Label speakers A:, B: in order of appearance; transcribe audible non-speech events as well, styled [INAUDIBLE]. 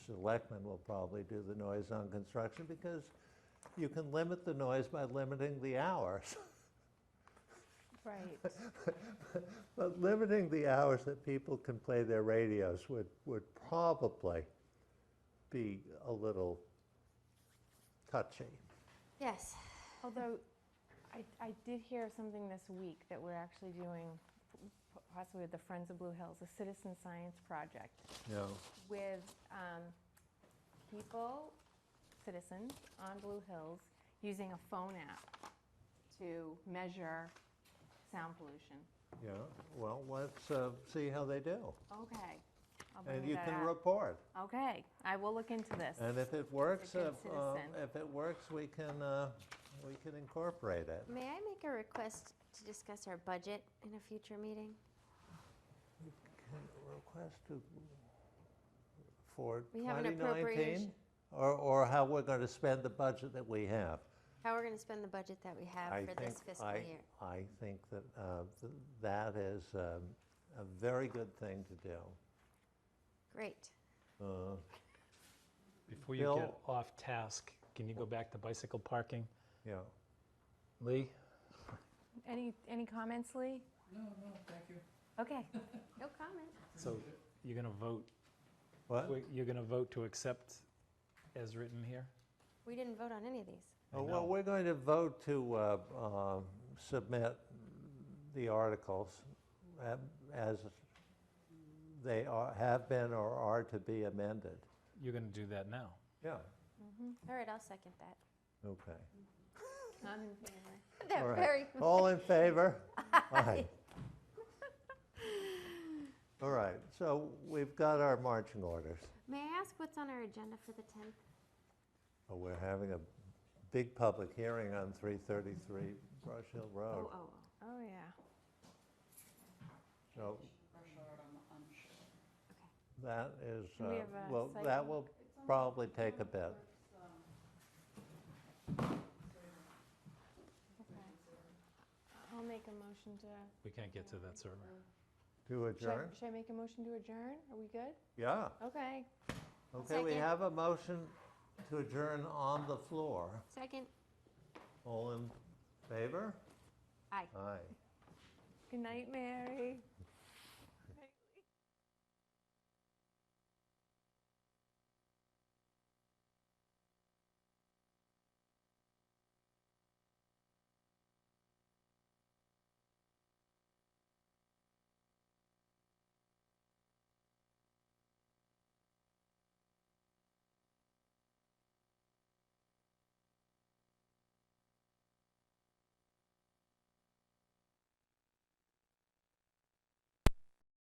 A: selectmen will probably do the noise on construction because you can limit the noise by limiting the hours. [LAUGHS]
B: Right.
A: But limiting the hours that people can play their radios would, would probably be a little touchy.
C: Yes.
B: Although, I, I did hear something this week that we're actually doing, p- possibly with the Friends of Blue Hills, a citizen science project
A: No.
B: with um, people, citizens on Blue Hills, using a phone app to measure sound pollution.
A: Yeah, well, let's uh, see how they do.
B: Okay. I'll bring
A: And you
B: that
A: can
B: up.
A: report.
B: Okay, I will look into this.
A: And if it works,
B: good
A: if, um,
B: citizen.
A: if it works, we can, uh, we can incorporate it.
C: May I make a request to discuss our budget in a future meeting?
A: Can Request to, for
C: We have an
A: 2019?
C: appropriation.
A: Or, or how we're going to spend the budget that we have?
C: How we're going to spend the budget that we
A: I
C: have for this
A: think-
C: fiscal
A: I-
C: year?
A: I think that uh, th- that is um, a very good thing to do. Uh,
C: Great.
D: Before you
A: Bill-
D: get off task, can you go back to bicycle parking?
A: Yeah.
D: Lee?
B: Any, any comments, Lee?
E: No, no, thank you.
B: Okay. [LAUGHS]
C: No comment.
D: So you're going to vote,
A: What?
D: wait, you're going to vote to accept as written here?
C: We didn't vote on any of these.
A: Oh,
D: know.
A: Well, we're going to vote to uh, um, submit the articles uh, as they are, have been or are to be amended.
D: You're going to do that now.
A: Yeah.
C: All right, I'll second that. [LAUGHS]
A: Okay.
B: I'm in favor.
A: All
C: They're
A: right.
C: very,
A: All in favor? Aye. All right, so we've got our marching orders.
C: may I ask what's on our agenda for the 10th?
A: Oh, We're having a big public hearing on 333 Brush Hill
C: Oh,
A: Road.
C: oh, oh,
B: Oh, yeah.
A: So
C: okay.
A: that is,
B: Do we
A: uh,
B: have a
A: well,
B: site-
A: that will probably take a bit.
B: Okay. I'll make a motion to.
D: We can't get to that server.
A: To
B: Should I-
A: adjourn?
B: Should I make a motion to adjourn? Are we good?
A: Yeah.
B: Okay.
A: Okay, we
C: Second.
A: have a motion to adjourn on the floor.
C: Second?
A: All in favor?
C: Aye.
A: Aye.
B: Good night, Mary.